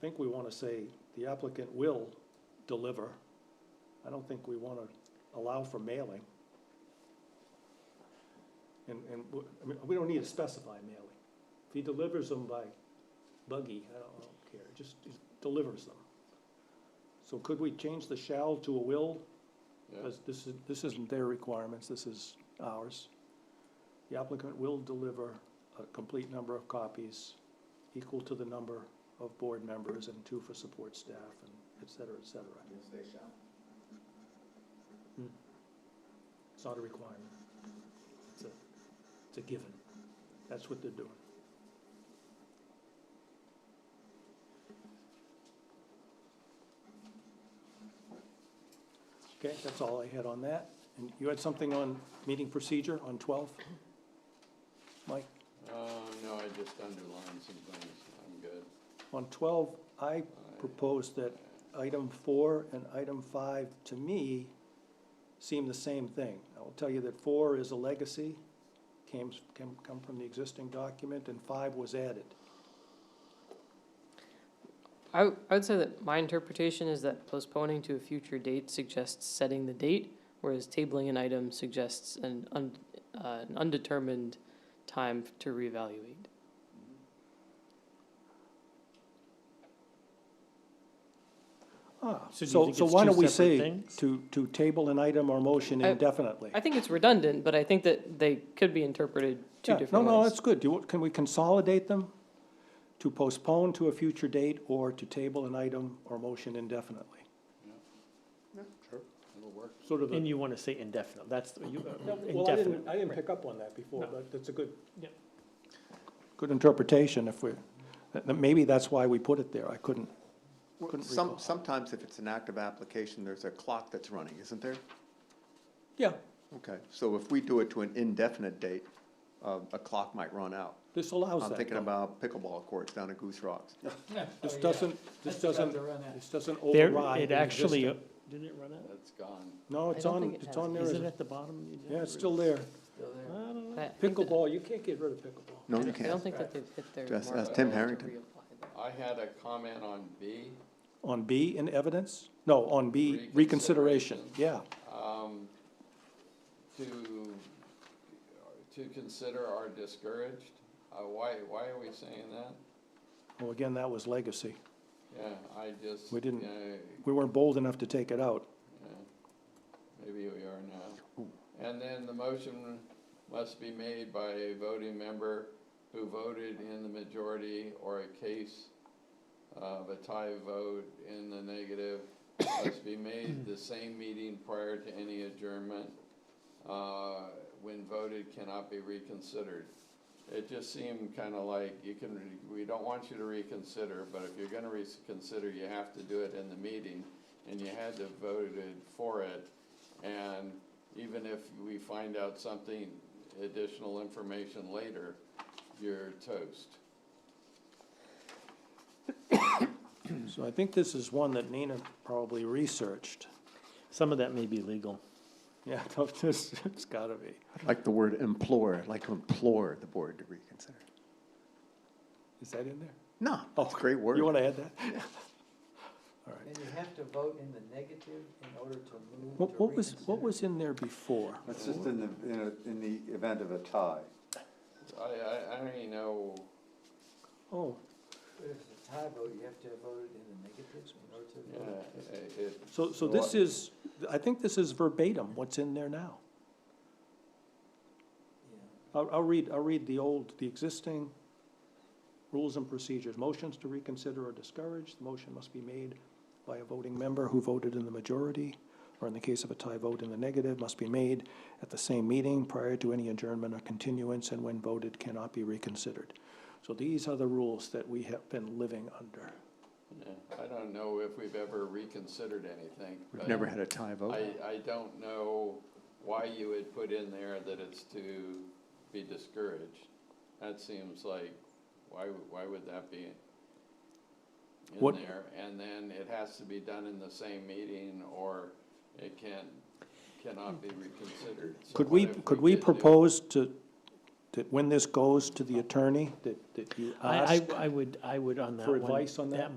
think we want to say the applicant will deliver. I don't think we want to allow for mailing. And, and, w- I mean, we don't need to specify mailing. If he delivers them by buggy, I don't, I don't care, just just delivers them. So could we change the shall to a will? Yeah, Because this is, this isn't their requirements, this is ours. The applicant will deliver a complete number of copies equal to the number of board members and two for support staff and et cetera, et cetera. Hmm. Yes, they shall. It's not a requirement. It's a, it's a given. That's what they're doing. Okay, that's all I had on that. And you had something on meeting procedure on twelve? Mike, uh, no, I just underlined some things, I'm good. on twelve, I I- uh, proposed that item four and item five, to me, seem the same thing. I will tell you that four is a legacy, came, came, come from the existing document, and five was added. I, w- I would say that my interpretation is that postponing to a future date suggests setting the date, whereas tabling an item suggests an, un, uh, an undetermined time f- to reevaluate. Ah, So do you so, think so it's why two don't we separate say things? to, to table an item or motion I- indefinitely? I think it's redundant, but I think that they could be interpreted two Yeah, different ways. No, no, that's good. Do, you- can we consolidate them? To postpone to a future date or to table an item or motion indefinitely? Sure, it'll work. Sort of a. And you want to say indefinite, that's, the- you, uh, No, Well, I didn't, I indefinite. didn't pick up on that before, No. but that's a good. Yep. Good interpretation if we, that- that maybe that's why we put it there. I couldn't, Well, Couldn't Some, recall. sometimes if it's an active application, there's a clock that's running, isn't there? yeah, Okay, so if we do it to an indefinite date, uh, a clock might run out. this allows that. I'm thinking though. about pickleball courts down at Goose Rocks. Oh, This doesn't, this doesn't, this doesn't There, override. it the actually, uh, existing. didn't it run out? That's gone. No, it's I don't on, think it it's has. on there. Is as it a- at the bottom? You Yeah, didn't it's still there. read it. I don't know. But I think that- Pickleball, you can't get rid of pickleball. No, you I don't can't. think that they've hit their Just mark. ask They'll Tim have to Harrington. reapply that. I had a comment on B. On B in evidence? No, on B reconsideration, Reconsideration. yeah. um, to, to consider are discouraged. Uh, why, why are we saying that? Well, again, that was legacy. Yeah, I just. We didn't- yeah, We weren't bold enough to take it out. yeah. Maybe we are now. And then the motion must be made by a voting member who voted in the majority or a case of a tie vote in the negative must be made the same meeting prior to any adjournment. uh, When voted cannot be reconsidered. It just seemed kind of like you can, re- we don't want you to reconsider, but if you're going to reconsider, you have to do it in the meeting. And you had to voted for it. And even if we find out something, additional information later, you're toast. So I think this is one that Nina probably researched. Some of that may be legal. Yeah, this, it's gotta be. I Like the word implore, I'd like to implore the board to reconsider. Is that in there? No, it's a great word. Oh, You wanna add that? All right. And you have to vote in the negative in order to move What, to what was, what reconsider. was in there before? That's just in the, in a- in the event of a tie. I, I, I don't even know, Oh, If it's a tie vote, you have to have voted in the negative in order to. yeah, vote. uh, it- it, so, so this What? is, I think this is verbatim what's in there now. Yeah. I'll, I'll read, I'll read the old, the existing rules and procedures. Motions to reconsider are discouraged. The motion must be made by a voting member who voted in the majority, or in the case of a tie vote in the negative, must be made at the same meeting prior to any adjournment or continuance, and when voted cannot be reconsidered. So these are the rules that we have been living under. yeah, I don't know if we've ever reconsidered anything. We've but never had a tie vote. I, I don't know why you would put in there that it's to be discouraged. That seems like, why, would- why would that be in What- there? And then it has to be done in the same meeting or it can, cannot be reconsidered. So Could what we, if could we did do- propose to, that when this goes to the attorney, that, that you ask? I, I, I would, I would on that For one. advice on that?